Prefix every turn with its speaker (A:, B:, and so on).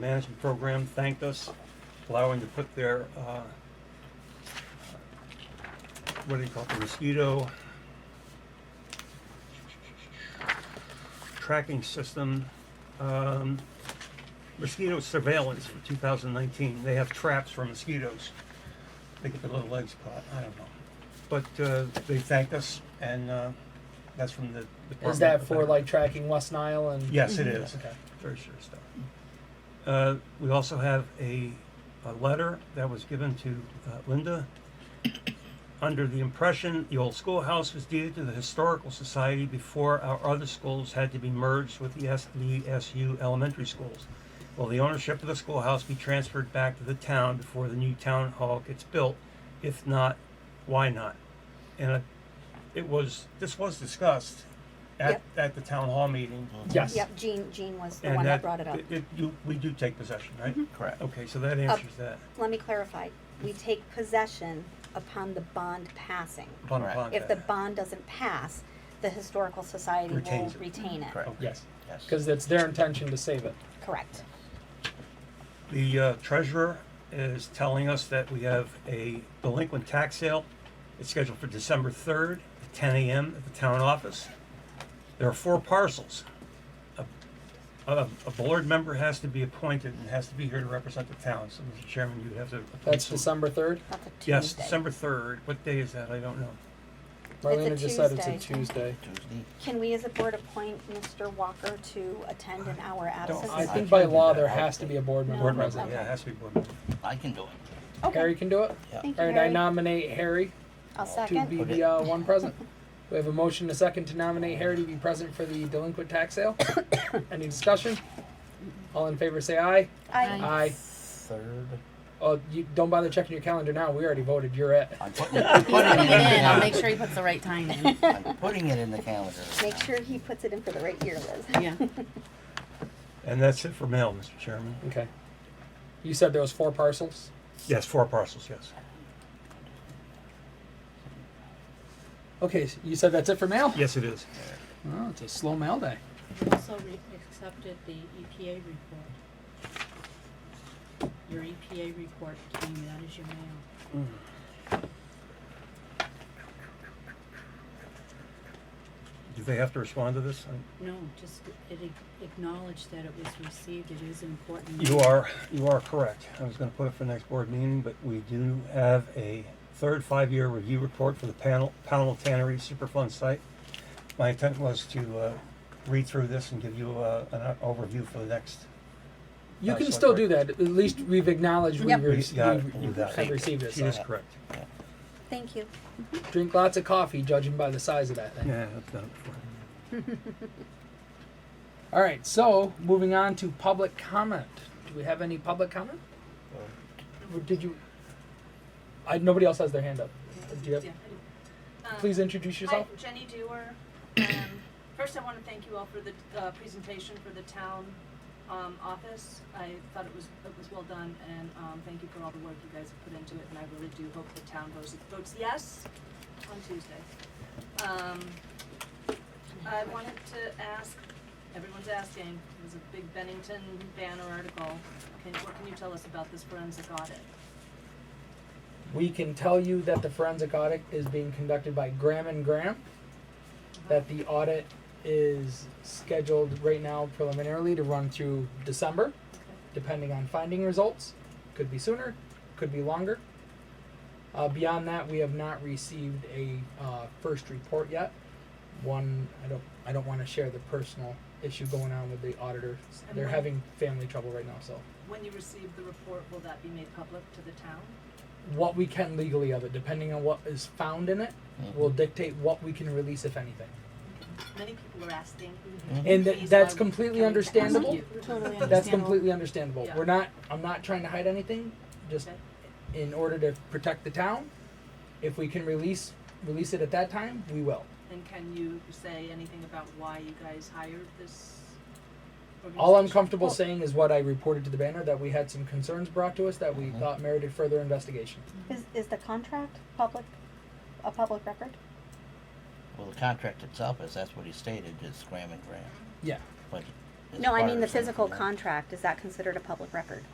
A: management program thanked us, allowing to put their, uh, what do you call it, the mosquito tracking system, um, mosquito surveillance for 2019. They have traps for mosquitoes. They get their little legs caught, I don't know. But uh, they thanked us, and uh, that's from the Department.
B: Is that
A: of
B: for
A: Veteran-
B: like tracking West Nile and? Mm-hmm.
A: Yes, it is.
B: Okay.
A: Very sure stuff. Uh, we also have a, a letter that was given to uh, Linda. Under the impression, the old schoolhouse was deeded to the Historical Society before our other schools had to be merged with the SDSU elementary schools. Will the ownership of the schoolhouse be transferred back to the town before the new town hall gets built? If not, why not? And it- it was, this was discussed at, at the town hall meeting.
B: Yes.
C: Yep, Jean, Jean was the
A: And
C: one that brought it up. Mm-hmm.
A: you- we do take possession, right?
D: Correct.
A: Okay, so that answers that.
C: Let me clarify, we take possession upon the bond passing.
A: Upon
D: Correct.
A: upon
C: If the
A: that.
C: bond doesn't pass, the historical society will
A: Retains it.
C: retain it.
D: Correct.
A: Okay.
B: Yes,
D: Yes.
B: because it's their intention to save it.
C: Correct.
A: The uh, treasurer is telling us that we have a delinquent tax sale. It's scheduled for December 3rd at 10 a.m. at the town office. There are four parcels. A- A a board member has to be appointed and has to be here to represent the town. So, Mr. Chairman, you would have to. appoint
B: That's
A: some-
B: December third.
C: That's a Tuesday.
A: Yes, December 3rd. What day is that? I don't know.
B: Marlena just said it's a
C: Tuesday.
B: Tuesday.
D: Tuesday.
C: Can we as a board appoint Mr. Walker to attend in our absence?
B: I
D: I
B: think
D: can't
B: by
D: do
B: law
D: that.
B: there
D: I'll
B: has to
D: take-
B: be a board member
A: Board member,
B: present.
C: Okay.
A: yeah, it has to be board member.
D: I can do it.
B: Harry
C: Okay,
B: can do it.
D: Yeah.
C: thank you,
B: All right, I
C: Harry.
B: nominate Harry
C: I'll
B: to be
C: second.
B: the uh, one present. We have a motion, and a second, to nominate Harry to be present for the delinquent tax sale. Any discussion? All in favor, say aye.
C: I,
B: Aye.
D: Third.
B: Oh, you don't bother checking your calendar now. We already voted. You're it.
D: I'm putting, it- I'm
E: Put
D: putting it in.
E: it in. I'll
D: now.
E: make sure he puts the right time in.
D: I'm putting it in the calendar. Uh,
C: make sure he puts it in for the right year, Liz.
E: Yeah.
A: And that's it for mail, Mr. Chairman.
B: Okay. You said there was four parcels.
A: Yes, four parcels, yes.
B: Okay, so you said that's it for mail.
A: Yes, it is.
B: Oh, it's a slow mail day.
F: You also re- accepted the EPA report. Your EPA report came, that is your mail.
A: Do they have to respond to this? Um,
F: No, just, it ac- acknowledged that it was received, it is important.
A: You are, you are correct. I was gonna put it for next board meeting, but we do have a third five-year review report for the panel, panel tannery superfund site. My intent was to, uh, read through this and give you, uh, an overview for the next.
B: You
A: Uh,
B: can
A: select
B: still
A: board.
B: do that. At least we've acknowledged
C: Yep.
B: we've, re-
A: We got it.
B: we've-
A: We
B: we've
A: got it.
B: have received it.
A: She
B: So.
A: is correct.
C: Thank you.
B: Drink lots of coffee, judging by the size of that thing.
A: Yeah, I've done it before.
B: All right, so moving on to public comment. Do we have any public comment? Or Did you? I, nobody else has their hand up. Do you have,
G: Yeah. Um,
B: Please introduce
G: Hi,
B: yourself.
G: Jenny Dewar. Um, First, I want to thank you all for the uh, presentation for the town um, office. I thought it was, it was well done, and um, thank you for all the work you guys have put into it, and I really do hope the town votes, votes yes on Tuesday. Um, I wanted to ask, everyone's asking, it was a big Bennington banner article. Can, what can you tell us about this forensic audit?
B: We can tell you that the forensic audit is being conducted by Graham and Graham. That the audit is scheduled right now preliminarily to run through December, depending on finding results. Could be sooner, could be longer. Uh, beyond that, we have not received a uh, first report yet. One, I don't, I don't want to share the personal issue going on with the auditors.
G: And
B: They're
G: when-
B: having family trouble right now, so
G: When you receive the report, will that be made public to the town?
B: what we can legally of it, depending on what is found in it, will dictate what we can release, if anything.
G: Many people are asking.
B: And
G: Please,
B: that, that's
G: why
B: completely
G: we coming to ask
B: understandable.
G: you?
E: Totally
B: That's completely understandable.
G: Yeah.
B: We're not, I'm not trying to hide anything, just
G: Okay.
B: in order to protect the town. If we can release, release it at that time, we will.
G: And can you say anything about why you guys hired this?
B: All I'm
G: organization?
B: comfortable saying is what I reported to the banner, that we had some concerns brought to us that we thought merited further investigation.
C: Is, is the contract public, a public record?
D: Well, the contract itself is, that's what he stated, is Graham and Graham.
B: Yeah.
D: But as
C: No, I
D: part
C: mean
D: of
C: the
D: something,
C: physical
D: right?
C: contract, is that considered a public record?